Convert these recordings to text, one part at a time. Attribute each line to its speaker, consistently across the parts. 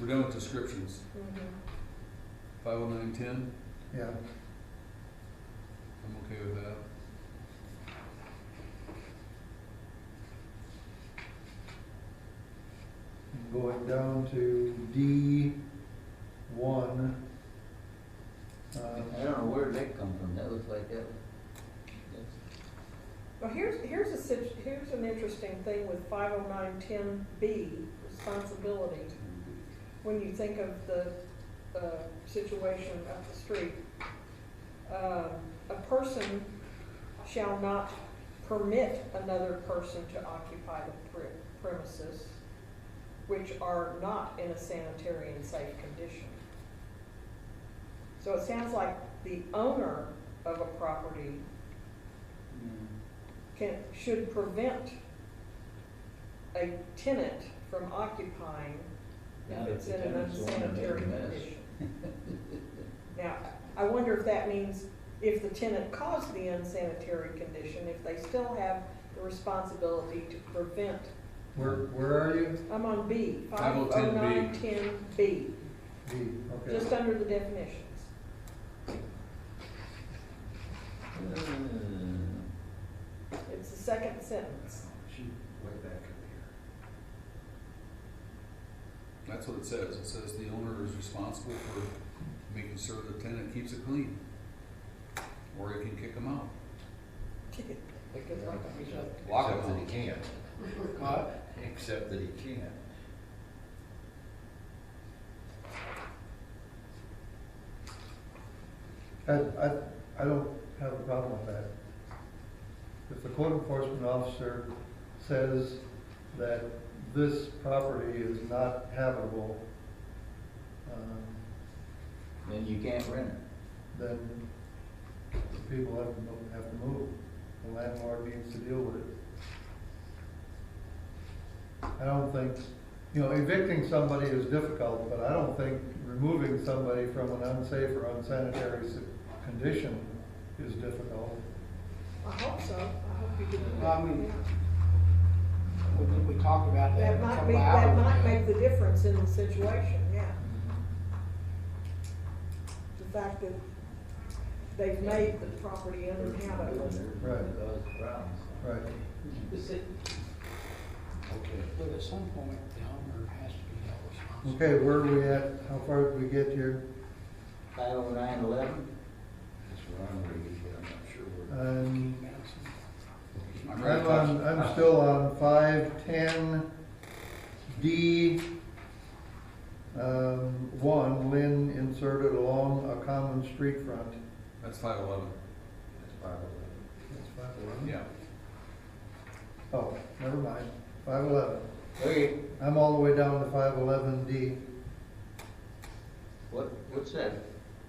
Speaker 1: We're done with descriptions.
Speaker 2: Mm-hmm.
Speaker 1: Five oh nine ten,
Speaker 3: Yeah,
Speaker 1: I'm okay with that.
Speaker 3: and going down to D one. Um,
Speaker 4: I don't know where that come from, that looks like that.
Speaker 2: Well, here's, here's a, sit- here's an interesting thing with five oh nine ten B, responsibility. when you think of the uh, situation up the street. Uh, A person shall not permit another person to occupy the pre- premises which are not in a sanitary and safe condition. So it sounds like the owner of a property can, should prevent a tenant from occupying
Speaker 4: Yeah,
Speaker 2: if it's in
Speaker 4: the
Speaker 2: an
Speaker 4: tenants don't wanna make a
Speaker 2: unsanitary
Speaker 4: mess.
Speaker 2: condition. Now, I wonder if that means if the tenant caused the unsanitary condition, if they still have the responsibility to prevent.
Speaker 3: Where, where are you?
Speaker 2: I'm on B, five oh
Speaker 1: 510B.
Speaker 2: nine ten B,
Speaker 3: D, okay.
Speaker 2: just under the definitions.
Speaker 4: Uh,
Speaker 2: It's the second sentence.
Speaker 5: She way back in
Speaker 1: That's what it says. It says the owner is responsible for making sure the tenant keeps it clean. Or he can kick them out.
Speaker 5: Except that
Speaker 1: Lock
Speaker 5: he
Speaker 1: them
Speaker 5: can't.
Speaker 1: out.
Speaker 5: Except that he can't.
Speaker 3: I, I, I don't have a problem with that. If the code enforcement officer says that this property is not habitable, um,
Speaker 4: Then you can't rent it.
Speaker 3: then the people have to, mo- have to move. The landlord needs to deal with it. I don't think, you know, evicting somebody is difficult, but I don't think removing somebody from an unsafe or unsanitary s- condition is difficult.
Speaker 2: I hope so, I hope you didn't.
Speaker 6: Well, I mean, We, we talked about that a
Speaker 2: That might
Speaker 6: couple
Speaker 2: be,
Speaker 6: of
Speaker 2: that
Speaker 6: hours
Speaker 2: might
Speaker 6: ago.
Speaker 2: make the difference in the situation, yeah. The fact that they've made the property uninhabitable.
Speaker 3: Right.
Speaker 4: Cause problems.
Speaker 3: Right.
Speaker 6: Is it-
Speaker 5: Okay.
Speaker 6: But at some point, the owner has to be held responsible.
Speaker 3: Okay, where are we at? How far did we get here?
Speaker 4: Five oh nine eleven,
Speaker 5: That's what I'm reading, but I'm not sure where.
Speaker 3: Um,
Speaker 1: I'm ready
Speaker 3: I'm
Speaker 1: to
Speaker 3: on,
Speaker 1: touch.
Speaker 3: I'm still on five, ten, D, um, one, Lynn inserted along a common street front.
Speaker 1: That's five eleven.
Speaker 5: That's five eleven.
Speaker 3: That's five eleven?
Speaker 1: Yeah.
Speaker 3: Oh, never mind, five eleven.
Speaker 4: okay,
Speaker 3: I'm all the way down to five eleven D.
Speaker 4: what, what's that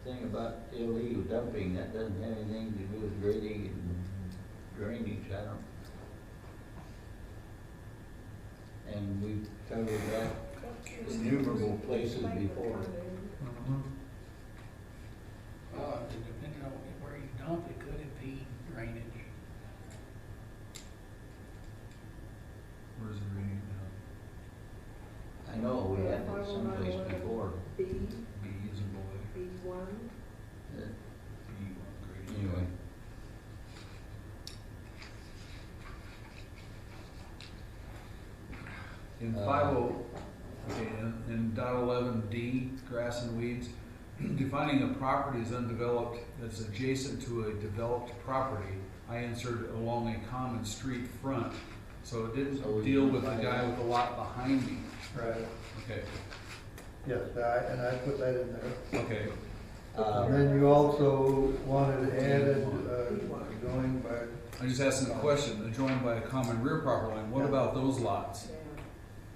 Speaker 4: thing about illegal dumping, that doesn't have anything to do with grading and drainage, I don't. And we've covered that, Innumerable places before.
Speaker 3: Mm-hmm.
Speaker 6: Uh, depending on where you dump it, could impede drainage.
Speaker 1: Where's the reading now?
Speaker 4: I know, we had it someplace
Speaker 2: 50911.
Speaker 4: before.
Speaker 2: B,
Speaker 1: B is in boy.
Speaker 2: B one,
Speaker 4: Uh,
Speaker 1: B grade.
Speaker 4: Anyway.
Speaker 1: In
Speaker 4: Uh,
Speaker 1: five oh, okay, in, in dot eleven D, grass and weeds, defining a property as undeveloped that's adjacent to a developed property, I inserted along a common street front, so it
Speaker 4: So we
Speaker 1: didn't deal
Speaker 4: can
Speaker 1: with the
Speaker 4: find
Speaker 1: guy
Speaker 4: out.
Speaker 1: with the lot behind me.
Speaker 3: Right,
Speaker 1: Okay,
Speaker 3: yes, I, and I put that in there.
Speaker 1: okay,
Speaker 3: And
Speaker 4: Uh,
Speaker 3: then you also wanted added, uh, going by,
Speaker 1: I just asked him a question, adjoined by a common rear property line, what about those lots?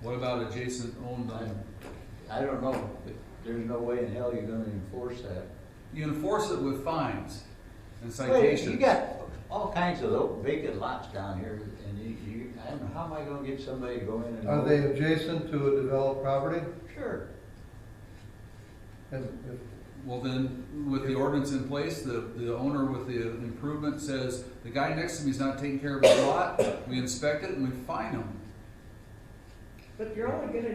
Speaker 1: What about adjacent owned um, on?
Speaker 4: I don't know, but there's no way in hell you're gonna enforce that.
Speaker 1: You enforce it with fines and
Speaker 4: Wait,
Speaker 1: citations.
Speaker 4: You got all kinds of little vacant lots down here, and you, you, I don't know, how am I gonna get somebody to go in and?
Speaker 3: are they adjacent to a developed property?
Speaker 4: Sure.
Speaker 3: And if
Speaker 1: Well, then, with the ordinance in place, the, the owner with the improvement says, the guy next to me's not taking care of his lot, we inspect it and we fine him.
Speaker 2: but you're only gonna